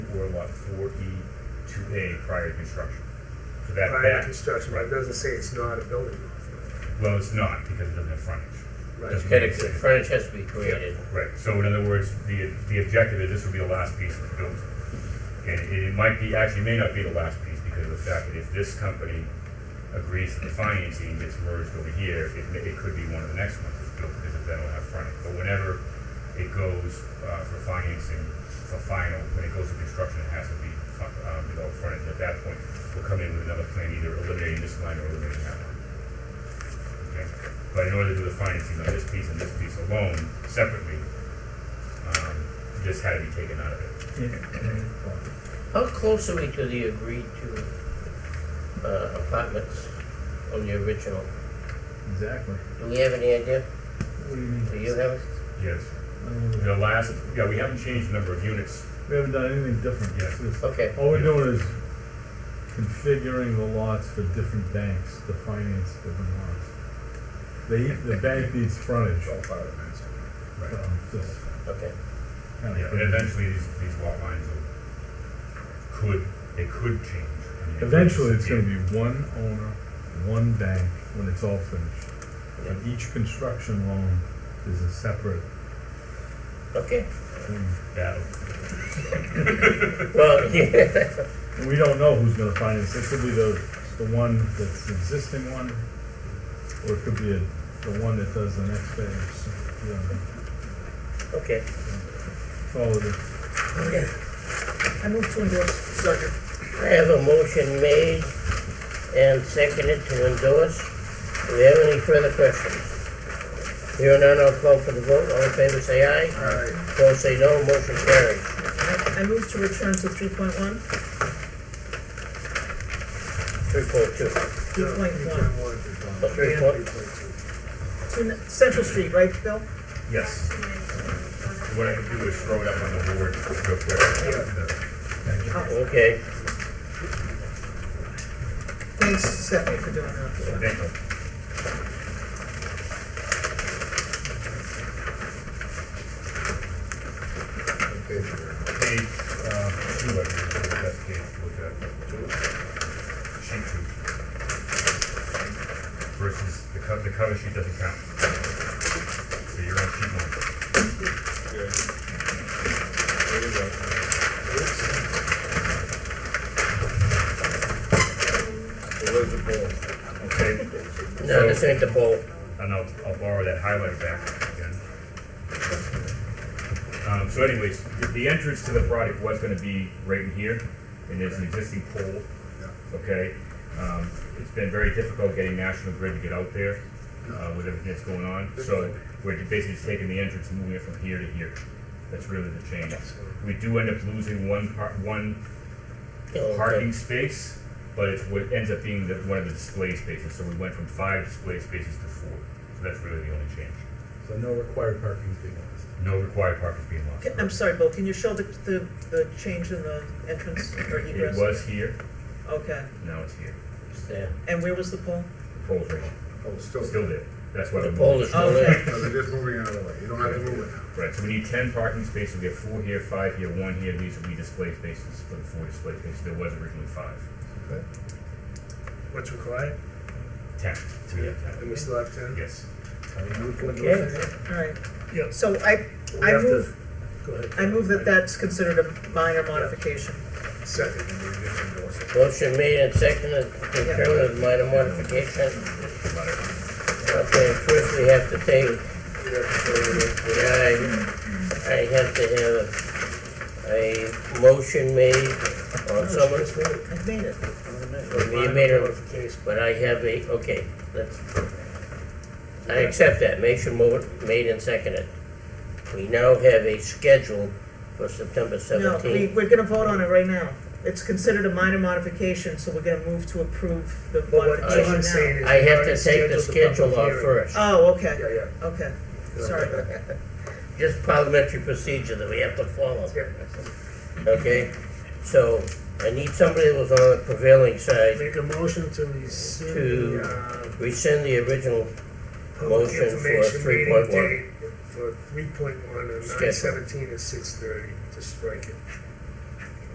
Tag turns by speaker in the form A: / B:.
A: for lot four E two A prior to construction. So that,
B: prior to
A: that,
B: construction, but it doesn't say it's not a building.
A: well, it's not because it doesn't have frontage.
B: Right.
A: Doesn't
C: Gotta,
A: make sense.
C: furniture has to be created.
A: Right, so in other words, the, the objective is this would be the last piece of the building. And it it might be, actually may not be the last piece because of the fact that if this company agrees that the financing gets merged over here, it, may- it could be one of the next ones that's built because then it'll have frontage. But whenever it goes, uh, for financing, for final, when it goes to construction, it has to be, fu- um, developed frontage. At that point, we'll come in with another plan, either eliminating this line or eliminating that line. Okay, But in order to do the financing of this piece and this piece alone separately, um, this had to be taken out of it.
C: How close are we to the agreed to uh, apartments on the original?
D: Exactly.
C: Do we have any idea?
D: What do you mean?
C: Do you have? it?
A: Yes.
D: Um,
A: The last, yeah, we haven't changed the number of units.
D: We haven't done anything different yet. It's-
C: Okay,
D: All we're doing is configuring the lots for different banks to finance different lots. The, the bank needs frontage.
A: Right.
D: so just
C: okay.
D: kinda-
A: Yeah, and eventually these, these lot lines will, could, they could change. I mean, it could
D: Eventually, it's
A: disappear.
D: gonna be one owner, one bank, when it's all finished. And each construction loan is a separate
C: Okay.
D: thing.
A: That'll,
C: Well, yeah.
D: And we don't know who's gonna finance, it could be the, the one that's the existing one, or it could be a, the one that does the next phase, you know,
C: Okay.
D: follow the,
E: I move to endorse.
B: Second.
C: I have a motion made and seconded to endorse. Do we have any further questions? Here and now, I'll call for the vote. All in favor, say aye.
B: Aye.
C: Opposed, say no. Motion carries.
E: I I move to return to three point one.
C: Three point two.
E: Three point one.
C: Oh, three point,
E: Central Street, right, Bill?
A: yes. What I could do is throw it up on the board real quick.
E: Oh,
C: okay.
E: Thanks, Stephanie, for doing that.
A: Thank you. Page, uh, two, I think, that page, look at. Sheet two. Versus the cover, the cover sheet doesn't count. So you're on sheet one. Okay,
C: No, this ain't the poll.
A: and I'll, I'll borrow that highlighter back again. Um, so anyways, the, the entrance to the project was gonna be right in here, and there's an existing pole, okay? Um, it's been very difficult getting National Grid to get out there, uh, with everything that's going on, so we're basically just taking the entrance and moving it from here to here. That's really the change. We do end up losing one part, one
C: Okay.
A: parking space, but it's what ends up being the, one of the display spaces, so we went from five display spaces to four. So that's really the only change.
F: So no required parking is being lost.
A: No required parking being lost.
E: Can- I'm sorry, Bill, can you show the, the, the change in the entrance or
A: It
E: egress?
A: was here,
E: Okay,
A: now it's here.
C: It's there.
E: and where was the pole?
A: The pole's right here,
F: Oh, it's still.
A: still there. That's why
C: The
A: we
C: poll
A: moved
C: is
A: it.
C: still there.
F: No, they're just moving out of the way. You don't have to move it now.
A: Right, so we need ten parking spaces, we have four here, five here, one here, these will be display spaces for the four display spaces. There was originally five.
F: Okay.
B: What's required?
A: Ten, so we have
B: And
A: ten.
B: we still have ten?
A: Yes.
C: Okay.
E: Alright.
B: Yeah.
E: So I,
B: We
E: I
B: have to-
E: move,
B: Go ahead.
E: I move that that's considered a minor modification.
B: Second. and we just endorse it.
C: Motion made and seconded to conclude minor modification. Okay, first we have to take,
B: We have to go with it.
C: I, I have to have a motion made or someone,
E: I've made it.
C: you made a,
B: Modification.
C: but I have a, okay, let's. I accept that, motion mo- made and seconded. We now have a schedule for September
E: No, we,
C: seventeenth.
E: we're gonna vote on it right now. It's considered a minor modification, so we're gonna move to approve the
B: But what
E: modification
B: John's saying
E: now.
B: is.
C: I
B: we've
C: have
B: already
C: to take the
B: scheduled public
C: schedule off
B: hearing.
C: first.
E: Oh,
B: Yeah,
E: okay,
B: yeah.
E: okay, sorry.
C: just parliamentary procedure that we have to follow,
B: Yeah.
C: okay? So, I need somebody that was on the prevailing side,
B: Make a motion to rescind
C: To-
B: the, uh,
C: rescind the original,
B: public
C: Motion for
B: information meeting
C: 3.1.
B: date for three point one and nine
C: Schedule.
B: seventeen and six thirty, just strike it.